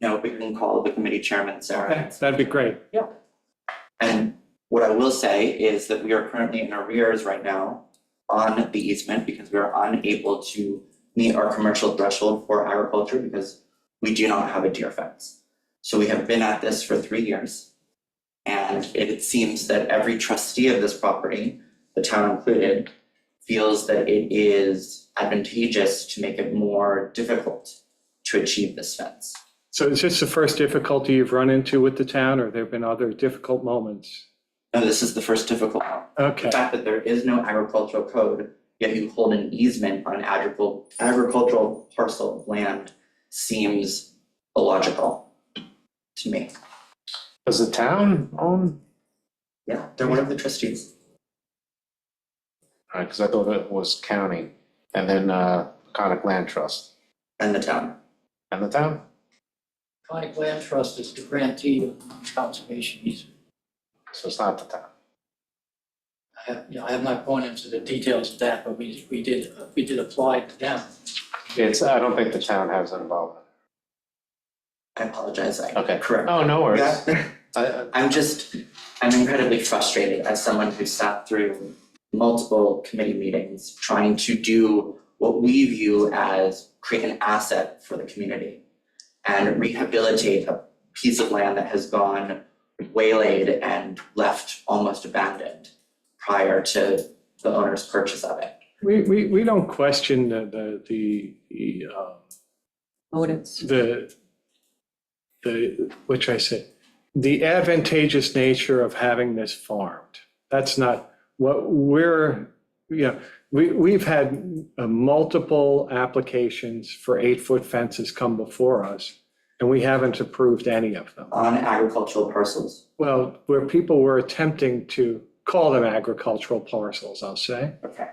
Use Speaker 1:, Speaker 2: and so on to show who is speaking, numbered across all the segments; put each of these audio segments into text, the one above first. Speaker 1: No, we can call the committee chairman, Sarah.
Speaker 2: Okay, That'd be great.
Speaker 1: And what I will say is that we are currently in arrears right now on the easement because we are unable to meet our commercial threshold for agriculture because we do not have a deer fence. So we have been at this for three years. And it seems that every trustee of this property, the town included, feels that it is advantageous to make it more difficult to achieve this fence.
Speaker 2: So is this the first difficulty you've run into with the town, or there have been other difficult moments?
Speaker 1: Now, this is the first difficult one.
Speaker 2: Okay,
Speaker 1: The fact that there is no agricultural code, yet you hold an easement on an agricultural agricultural parcel of land seems illogical to me.
Speaker 3: Does the town own?
Speaker 1: Yeah, they're one of the trustees.
Speaker 3: Alright, cause I thought it was county and then uh Conic Land Trust
Speaker 1: And the town.
Speaker 3: and the town?
Speaker 4: Conic Land Trust is the grantee of conservation easement.
Speaker 3: So it's not the town.
Speaker 4: I have, you know, I have not gone into the details of that, but we, we did, we did apply to them.
Speaker 3: It's, I don't think the town has involvement.
Speaker 1: I apologize, I.
Speaker 3: Okay.
Speaker 1: Correct.
Speaker 3: Oh, no worries.
Speaker 1: Yeah.
Speaker 3: I- I-
Speaker 1: I'm just, I'm incredibly frustrated as someone who sat through multiple committee meetings trying to do what we view as create an asset for the community and rehabilitate a piece of land that has gone waylaid and left almost abandoned prior to the owner's purchase of it.
Speaker 2: we, we, we don't question the, the, the, the, um,
Speaker 5: motives.
Speaker 2: the, the, which I said, the advantageous nature of having this farmed. That's not what we're, you know, we, we've had uh, multiple applications for eight-foot fences come before us, and we haven't approved any of them.
Speaker 1: On agricultural parcels,
Speaker 2: Well, where people were attempting to call them agricultural parcels, I'll say.
Speaker 1: okay,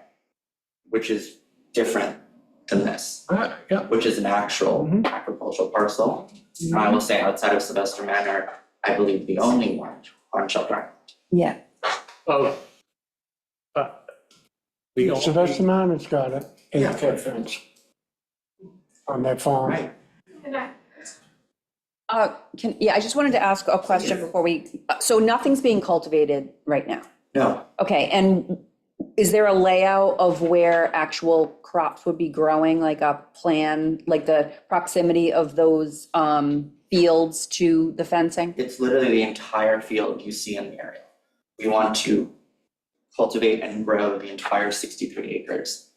Speaker 1: which is different than this.
Speaker 2: Uh, Yeah,
Speaker 1: which is an actual
Speaker 2: Mhm.
Speaker 1: agricultural parcel. And I will say outside of Sylvester Manor, I believe the only one on Shelter
Speaker 5: Yeah,
Speaker 2: well. uh, the only-
Speaker 6: Sylvester Minor's got an
Speaker 1: Yeah.
Speaker 6: eight-foot fence on their farm.
Speaker 1: Right.
Speaker 5: uh, can, yeah, I just wanted to ask a question before we, so nothing's being cultivated right now?
Speaker 1: No,
Speaker 5: Okay, and is there a layout of where actual crops would be growing, like a plan, like the proximity of those um, fields to the fencing?
Speaker 1: it's literally the entire field you see in the area. We want to cultivate and grow the entire sixty-three acres.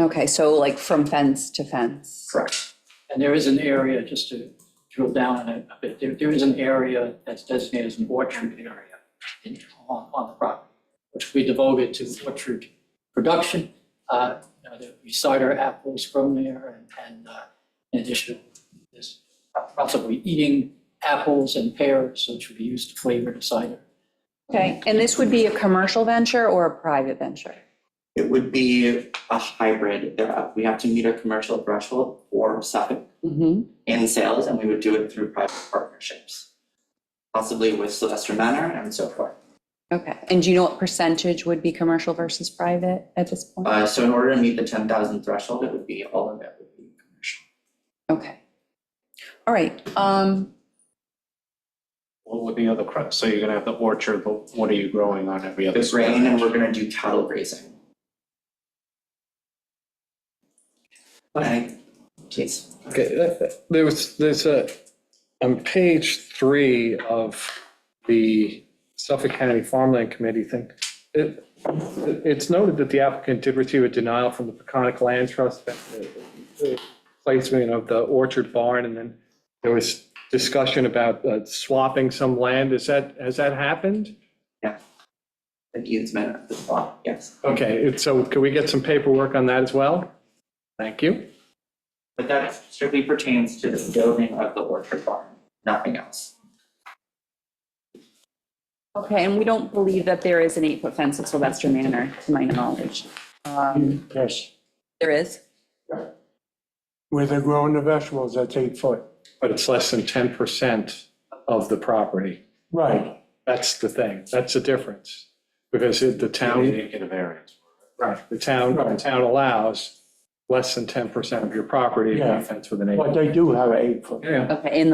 Speaker 5: Okay, so like from fence to fence?
Speaker 1: Correct.
Speaker 4: And there is an area, just to drill down on it a bit, there, there is an area that's designated as an orchard area in, on, on the property, which we devoted to orchard production. Uh, you know, there- we cider apples grown there and, and, uh, in addition, there's possibly eating apples and pears, which would be used to flavor the cider.
Speaker 5: Okay, and this would be a commercial venture or a private venture?
Speaker 1: It would be a hybrid. There, are- we have to meet a commercial threshold for Suffolk
Speaker 5: Mm-hmm.
Speaker 1: in sales, and we would do it through private partnerships. Possibly with Sylvester Manor and so forth.
Speaker 5: Okay, and do you know what percentage would be commercial versus private at this point?
Speaker 1: Uh, so in order to meet the ten thousand threshold, it would be, all of it would be commercial.
Speaker 5: Okay. All right, um,
Speaker 3: What would the other crop, so you're gonna have the orchard, but what are you growing on every other?
Speaker 1: It's grain and we're gonna do cattle grazing. Okay, please,
Speaker 2: Okay, that- that- there was, there's a, on page three of the Suffolk County Farmland Committee thing, it, it's noted that the applicant did receive a denial from the Peconic Land Trust, that the- the placement of the orchard barn, and then there was discussion about uh, swapping some land. Is that, has that happened?
Speaker 1: an easement at the spot, yes.
Speaker 2: Okay, it's- so can we get some paperwork on that as well? Thank you.
Speaker 1: But that strictly pertains to the building of the orchard farm, nothing else.
Speaker 5: okay, and we don't believe that there is an eight-foot fence at Sylvester Manor, to my knowledge. Um,
Speaker 6: Yes,
Speaker 5: There is?
Speaker 6: where they're growing the vegetables, that's eight foot.
Speaker 2: But it's less than 10% of the property.
Speaker 6: Right,
Speaker 2: That's the thing, that's the difference, because it- the
Speaker 3: You
Speaker 2: town,
Speaker 3: didn't get a variance.
Speaker 2: right, the town, the town allows less than ten percent of your property to
Speaker 6: Yeah.
Speaker 2: be fenced with an
Speaker 6: but
Speaker 2: acre.
Speaker 6: they do have an eight foot.
Speaker 2: Yeah.
Speaker 5: Okay, in